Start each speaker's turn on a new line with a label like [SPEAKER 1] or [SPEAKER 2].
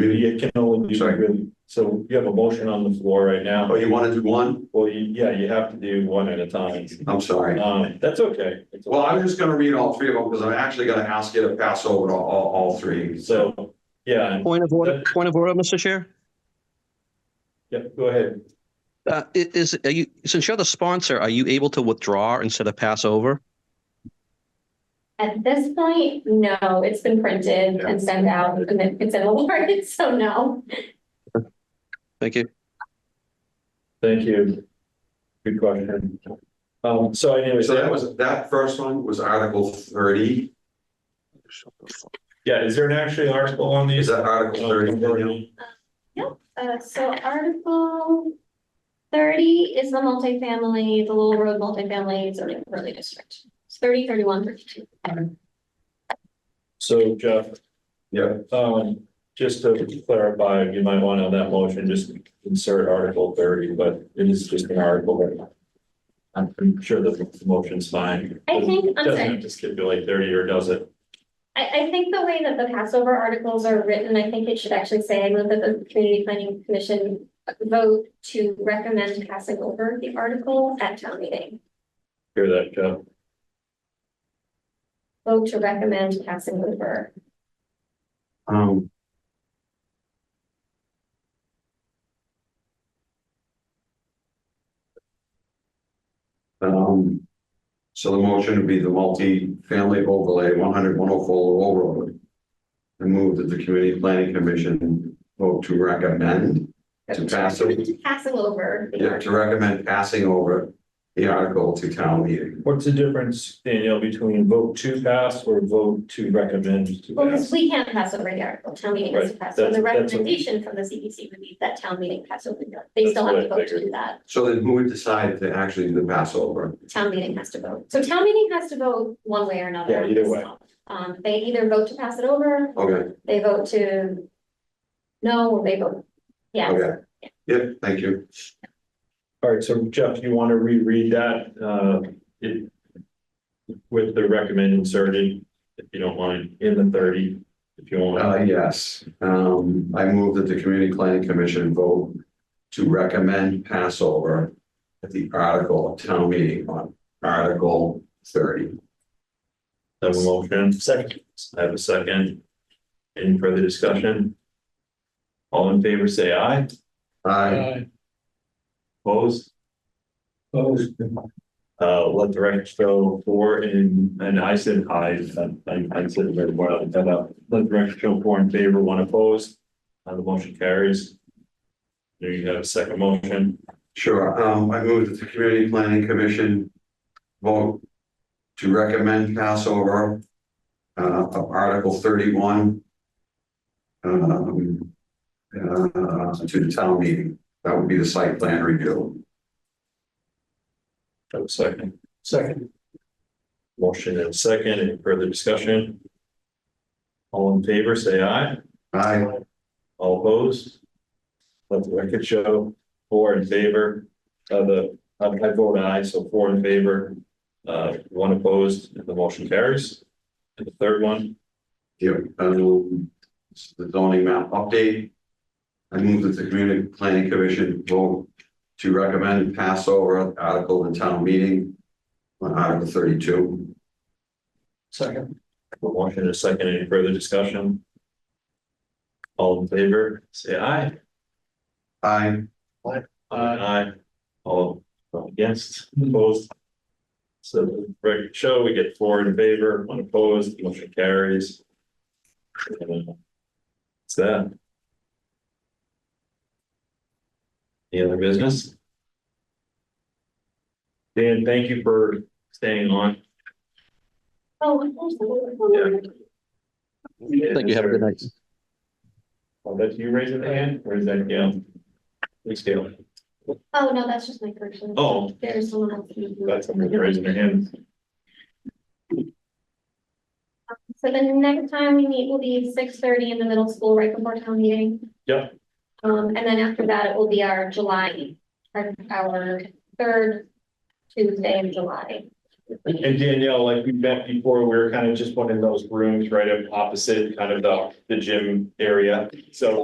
[SPEAKER 1] Really, it can only be
[SPEAKER 2] Sorry.
[SPEAKER 1] really, so you have a motion on the floor right now.
[SPEAKER 2] Oh, you wanted to do one?
[SPEAKER 1] Well, you- yeah, you have to do one at a time.
[SPEAKER 2] I'm sorry.
[SPEAKER 1] Um, that's okay. It's
[SPEAKER 2] Well,
[SPEAKER 1] okay.
[SPEAKER 2] I'm just gonna read all three of them because I'm actually gonna ask you to pass over to all, all three.
[SPEAKER 1] So, yeah, and-
[SPEAKER 3] Point of order, point of order, Mr. Chair.
[SPEAKER 1] yeah, go ahead.
[SPEAKER 3] Uh, i- is, are you, since you're the sponsor, are you able to withdraw instead of pass over?
[SPEAKER 4] At this point, no, it's been printed and sent out and then it's in the warrant, so no.
[SPEAKER 3] Thank you.
[SPEAKER 1] Thank you. Good question. Um, so anyways,
[SPEAKER 2] So that
[SPEAKER 1] that was,
[SPEAKER 2] was, that first one was Article thirty.
[SPEAKER 1] yeah, is there an actually article on
[SPEAKER 2] Is
[SPEAKER 1] these? Oh,
[SPEAKER 2] that Article thirty? Danielle?
[SPEAKER 4] Uh, so Article thirty is the multifamily, the Little Road multifamily zoning overlay district. It's 30, 31, 32.
[SPEAKER 1] So Jeff,
[SPEAKER 2] Yeah,
[SPEAKER 1] Um, just to clarify, you might want on that motion, just insert article thirty, but it is just an article. I'm I'm sure the motion's fine.
[SPEAKER 4] I think- I'm
[SPEAKER 1] Doesn't
[SPEAKER 4] sorry.
[SPEAKER 1] have to stipulate thirty or does it?
[SPEAKER 4] I, I think the way that the Passover articles are written, I think it should actually say, I move that the Community Planning Commission vote to recommend passing over the article at town meeting.
[SPEAKER 1] Hear that, Jeff?
[SPEAKER 4] Vote to recommend passing over.
[SPEAKER 2] um. Um, so the motion would be the multi-family overlay, 100 104 Lowell Road. And move that the community planning commission vote to recommend, To pass over.
[SPEAKER 4] To Passing over.
[SPEAKER 2] yeah, to recommend passing over the article to town meeting.
[SPEAKER 1] What's the difference, Danielle, between vote to pass or vote to recommend to
[SPEAKER 4] Well, because
[SPEAKER 1] pass?
[SPEAKER 4] we can't pass over the article, town meeting has to pass, so
[SPEAKER 1] Right,
[SPEAKER 4] the
[SPEAKER 1] that's- that's-
[SPEAKER 4] recommendation from the CPC would be that town meeting pass over, the- they still
[SPEAKER 1] That's
[SPEAKER 4] have to
[SPEAKER 1] what I
[SPEAKER 4] vote to do that,
[SPEAKER 2] So then who would decide to actually do the passover?
[SPEAKER 4] town meeting has to vote. So town meeting has to vote one way or another.
[SPEAKER 1] Yeah,
[SPEAKER 4] on
[SPEAKER 1] either
[SPEAKER 4] this
[SPEAKER 1] way.
[SPEAKER 4] one. Um, they either vote to pass it over,
[SPEAKER 2] Okay,
[SPEAKER 4] they vote to no, or they vote, yes.
[SPEAKER 2] okay. Yep, thank you.
[SPEAKER 1] All right, so Jeff, you want to reread that, uh, it with the recommend inserted, if you don't mind, in the thirty, if you want.
[SPEAKER 2] Uh, yes, um, I move that the community planning commission vote to recommend Passover at the article of town meeting on Article thirty.
[SPEAKER 1] I Have a motion. Second. I have a second. Any further discussion? All in favor, say aye.
[SPEAKER 2] I,
[SPEAKER 5] Aye.
[SPEAKER 1] Opposed? Uh, let the record show four in, and I said aye, I, I said very well, that up. Let the record show four in favor, one opposed. Uh, the motion carries. There you have a second motion.
[SPEAKER 2] sure, um, I move that the community planning commission vote to recommend Passover uh, of Article thirty-one um, uh, to the town meeting. That would be the site plan review.
[SPEAKER 1] I have a second. Second. Motion and second, any further discussion? All in favor, say aye.
[SPEAKER 2] I,
[SPEAKER 1] All opposed? Let the record show, four in favor, uh, the, I I vote aye, so four in favor, uh, one opposed, and the motion carries. And the third one,
[SPEAKER 2] Yeah, um, it's the zoning map update. I move that the community planning commission vote to recommend pass over article in town meeting. On article thirty-two,
[SPEAKER 1] the motion is second, any further discussion? All in favor, say aye.
[SPEAKER 2] I,
[SPEAKER 1] Aye. All against, opposed. So the record show, we get four in favor, one opposed, motion carries. And, uh, It's that. Any other business? Dan, thank you for staying on.
[SPEAKER 4] Oh,
[SPEAKER 3] Thank you. Have a good night.
[SPEAKER 1] Oh, that's you raising the hand, or is that Gail? It's Gail.
[SPEAKER 4] oh, no, that's just my version.
[SPEAKER 1] Oh.
[SPEAKER 4] There's someone else. who-
[SPEAKER 1] That's someone raising their hand.
[SPEAKER 4] So the next time we meet will be six thirty in the middle school, right before town meeting.
[SPEAKER 1] Yep.
[SPEAKER 4] Um, and then after that, it will be our July, our, our third Tuesday in July.
[SPEAKER 1] And Danielle, like we met before, we were kind of just one in those rooms right up opposite kind of the, the gym area. So